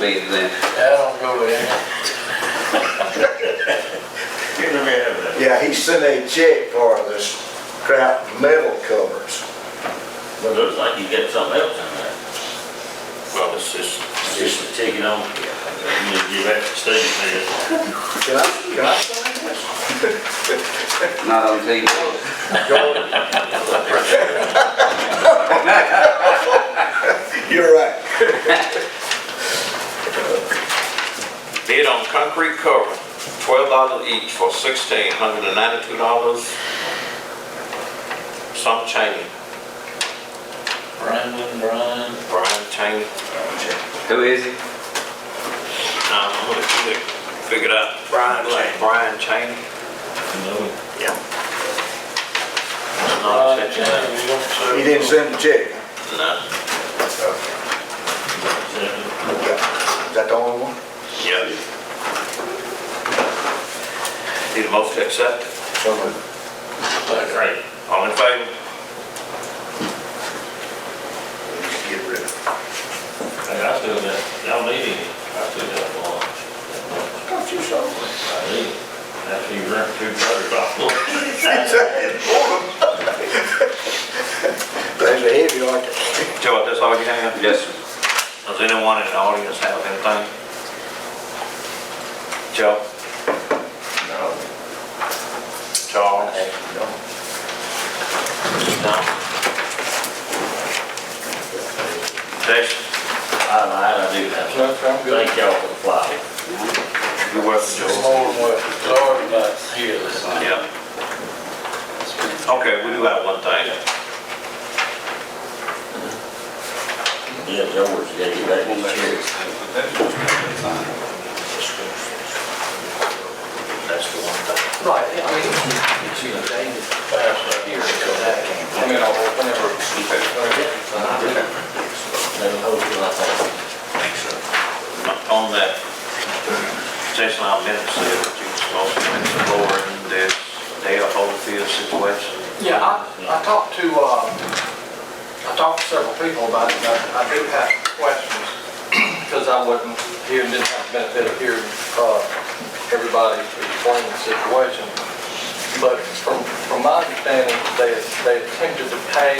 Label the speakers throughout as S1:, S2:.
S1: meeting then.
S2: I don't go in.
S3: Give them a minute.
S4: Yeah, he sent a check for this crap metal covers.
S3: But it looks like you get something else in there. Well, it's just. It's just taking on. You need to give that to Steve there.
S4: Can I, can I sign this?
S1: Not on TV.
S4: You're right.
S5: Bid on concrete cover, twelve dollars each for sixteen hundred and ninety-two dollars. Some Cheney,
S2: Brandon, Brian,
S5: Brian Cheney.
S1: Who is he?
S5: Now, I'm gonna figure- figure it out.
S3: Brian Cheney.
S5: Brian Cheney.
S3: You know,
S5: No,
S2: Brian,
S5: it's
S2: Jane,
S5: at your name.
S2: you don't serve.
S4: He didn't send the check.
S5: No,
S3: it's
S4: Okay. Is that the only one?
S5: yeah. Need a motion to accept?
S4: So moved.
S2: Second.
S5: Right. All in favor?
S4: We just Get rid of
S3: a- Hey, I still got, y'all need it. I still got lunch.
S4: it. Got you some.
S3: I need it. After you rent two brothers off.
S4: That's a heavy article.
S5: Joe, that's all you have?
S1: Yes, sir.
S5: Does anyone in the audience have anything? Joe?
S3: No.
S5: Charles? No. Jason?
S3: I lied, I do have some.
S2: Look, I'm good.
S3: Thank y'all for the flyer.
S5: You're welcome,
S2: It's
S5: Joe.
S2: more than what, it's already about here this time.
S5: Yeah. Okay, we do have one thing.
S3: Yeah, George gave you that. Cheers.
S5: That's the one thing.
S2: Right, I mean, it's you, they just pass up here, so that Uh-huh. can't. I mean, I'll open
S3: That'll hold you like that.
S5: On that, Jason, I've been to see what you supposed to explore in this Dale Hopefield situation.
S6: Yeah, I, I talked to, uh, I talked to several people about it, and I I do have questions, because I wasn't here and didn't have the benefit of hearing, uh, everybody explain the situation. But from, from my understanding, they, they attempted to pay,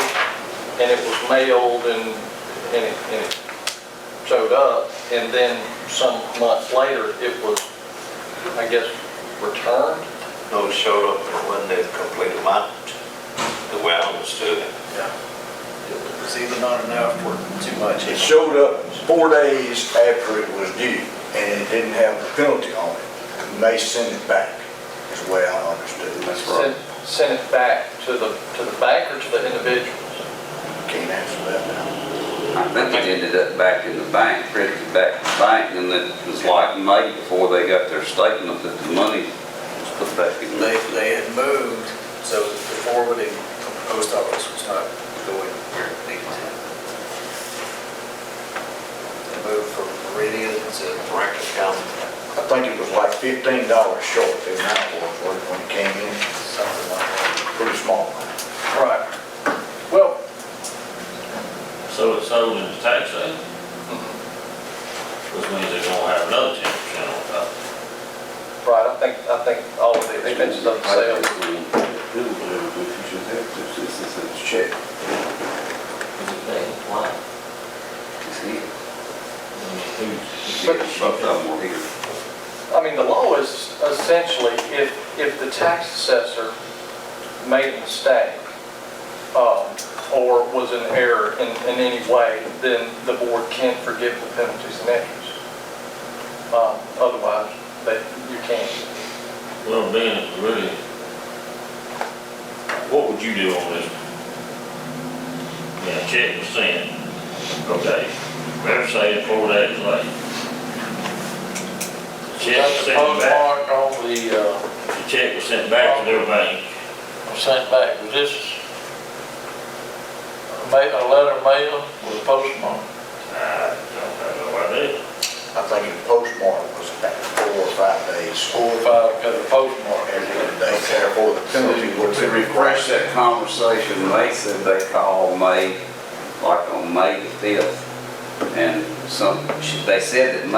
S6: and it was mailed, and, and it, and it showed up, and then some months later, it was, I guess, returned?
S5: Those showed up and when they completed amount, the way I understood it.
S2: It was either not enough or too much.
S4: It showed up four days after it was due and it didn't have the penalty on it. And they sent it back, is the way I understood. That's
S6: sent, sent it back to the, to the bank or to the individual?
S4: Can't answer that now.
S1: I think it ended up back in the bank, printed back in the bank, and it was like May before they got their statement that the money was put back in
S7: They,
S1: there.
S7: they had moved, so the forwarding from the post office was not going where it needed to. They moved from Meridian to
S5: Rankin County.
S4: I think it was like fifteen dollars short in that one when it came in.
S7: something like that.
S4: Pretty small.
S6: Right. Well,
S3: So it's sold in the tax sale. Which means they're gonna have another ten percent on top.
S6: right, I think, I think all of the expenses of the sale,
S4: Check.
S3: Why?
S1: It's here.
S3: Who's?
S6: But-
S1: Both of them were here.
S6: I mean, the law is essentially, if, if the tax assessor made a mistake, um, or was in error in, in any way, then the board can forgive the penalties and interest. Um, otherwise, they, you can't.
S3: Well, being it's really, what would you do on this? Yeah, check was sent, okay, better say it four days late. The Check was
S2: Got the
S3: sent back,
S2: postmark on the, uh,
S3: the check was sent back to their bank,
S2: sent back, was this a ma, a letter mailed with a postmark?
S3: I don't know what I did.
S4: I think the postmark was about four or five days.
S2: Four or five, got a postmark.
S4: Therefore, the penalty would
S1: To
S4: be
S1: refresh
S4: requested.
S1: that conversation, they said they called May, like on May the fifth, And some, she- they said that maybe